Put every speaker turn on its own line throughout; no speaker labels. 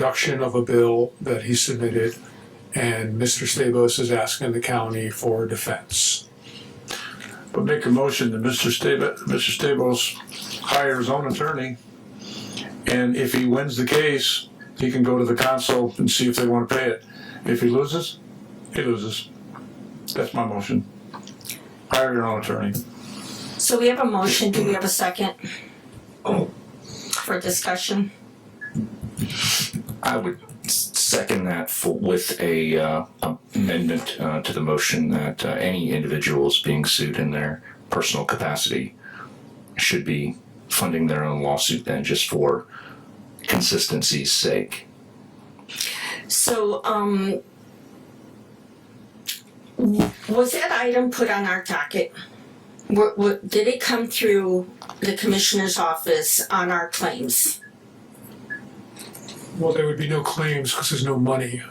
production of a bill that he submitted, and Mr. Stabos is asking the county for defense.
But make a motion that Mr. Stabos, Mr. Stabos hire his own attorney. And if he wins the case, he can go to the council and see if they wanna pay it. If he loses, he loses. That's my motion. Hire your own attorney.
So we have a motion, do we have a second?
Oh.
For discussion,
I would s- second that for, with a uh, amendment uh, to the motion that uh, any individuals being sued in their personal capacity should be funding their own lawsuit then just for consistency's sake.
so, um. w- Was that item put on our docket? Wha- wha- did it come through the commissioner's office on our claims?
Well, there would be no claims because there's no money.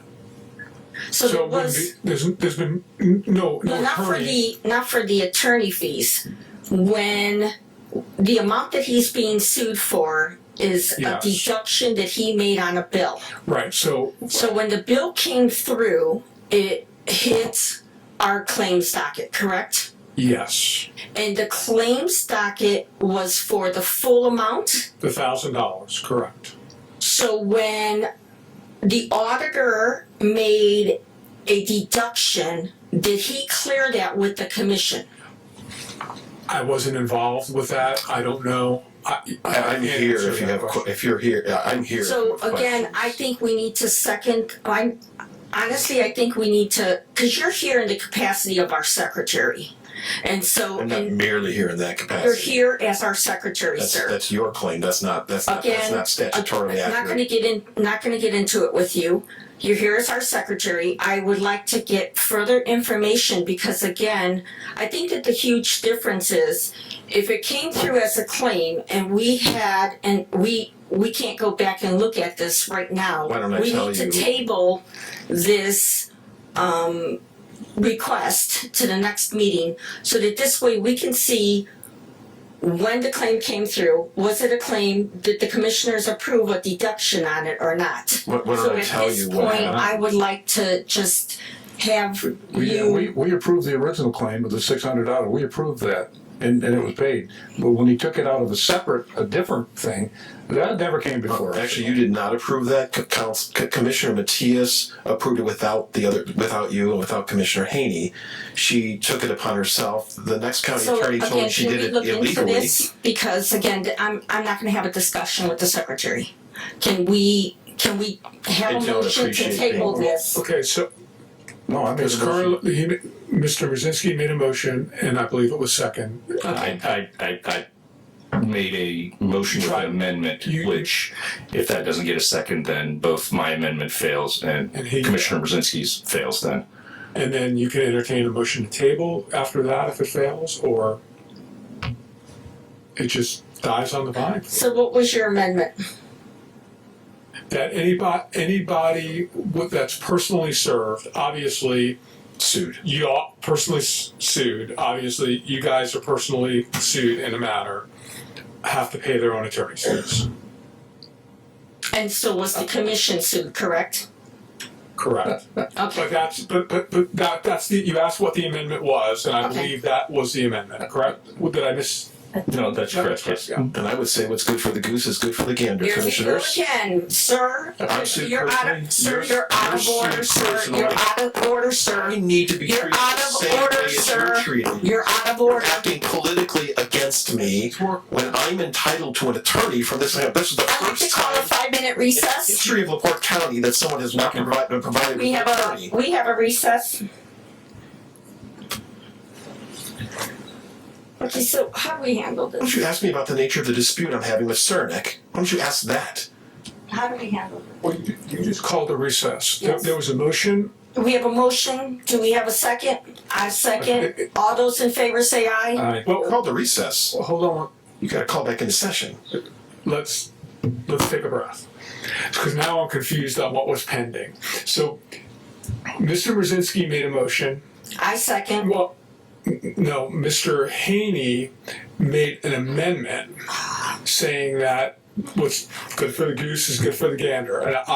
So
So there
it wouldn't
was,
be, there's, there's been n- no,
well,
no
not for
attorney.
the, not for the attorney fees, when the amount that he's being sued for is a
Yes.
deduction that he made on a bill.
Right, so,
So when the bill came through, it hit our claims docket, correct?
yes,
And the claims docket was for the full amount.
the thousand dollars, correct.
So when the auditor made a deduction, did he clear that with the commission?
I wasn't involved with that, I don't know. I, I
I,
can't
I'm here
answer
if you
that
have, que-
question.
if you're here, yeah, I'm here. if you
So
have
again,
questions.
I think we need to second, I, honestly, I think we need to, cause you're here in the capacity of our secretary. And so,
I'm not
and
merely here in that
You're
capacity.
here as our secretary,
That's,
sir.
that's your claim, that's not, that's not, that's
Again,
not statutorily
I'm not gonna
accurate.
get in, not gonna get into it with you. You're here as our secretary. I would like to get further information because again, I think that the huge difference is if it came through as a claim and we had, and we, we can't go back and look at this right now.
Why don't I tell
We need
you-
to table this, um, request to the next meeting so that this way we can see when the claim came through, was it a claim, did the commissioners approve a deduction on it or not?
What, what did I tell you?
So at
what
this point,
happened?
I would like to just have
We, we,
you,
we approved the original claim of the six hundred dollar, we approved that, and, and it was paid. But when he took it out of a separate, a different thing, that never came before. us.
Actually, you did not approve that. Co- Couns- Co- Commissioner Matias approved it without the other, without you and without Commissioner Haney. She took it upon herself. The next county
so
attorney told me
again,
she
can
did
we
it
look into
illegally.
this? Because again, I'm, I'm not gonna have a discussion with the secretary. Can we, can we have
I
a
don't
motion to
appreciate
table
being-
this?
Okay, so,
No, I made
Ms.
a motion.
Carl, he, Mr. Rosinski made a motion, and I believe it was second.
I, I, I, I made a motion with an amendment,
You-
which if that doesn't get a second, then both my amendment fails and,
And he-
Commissioner Brzezinski's fails then.
And then you can entertain a motion to table after that if it fails, or it just dies on the vine.
So what was your amendment?
That anybody, anybody with- that's personally served, obviously,
Sued.
you all personally s- sued, obviously, you guys are personally sued in a matter, have to pay their own attorney's fees,
And so was the commission sued, correct?
correct?
Okay,
But that's, but, but, but that, that's the, you asked what the amendment was, and I
Okay.
believe that was the amendment, correct? Did I miss?
No, that's correct, yes.
Yeah.
And I would say what's good for the goose is good for the gander,
Here you go
commissioners.
again, sir.
I'm sued
You're out
personally.
of, sir,
You're-
you're out
you're
of
sued
order, sir.
personally.
You're out of order,
I
sir.
need to be
You're
treated
out
the
of
same
order,
way as you're
sir.
treated.
You're out of order.
acting politically against me when I'm entitled to an attorney from this. This is the
I'd like to
first
call a
time
five-minute
in the
recess.
history of LaPorte County that someone has not been provided, been provided with
We
an
have
attorney.
a, we have a recess. Okay, so how do we handle
Why don't
this?
you ask me about the nature of the dispute I'm having with Cernick? Why don't you ask that?
How do we handle
Well, you you just called a recess. There,
Yes.
there was a motion.
this? We have a motion. Do we have a second? I second. All those in favor say aye.
Well, call the recess.
Well, hold on.
You got to call back into session.
Let's let's take a breath because now I'm confused on what was pending. So, Mr. Brzezinski made a motion.
I second.
Well, n- no, Mr. Haney made an amendment saying that what's good for the goose is good for the gander, and I,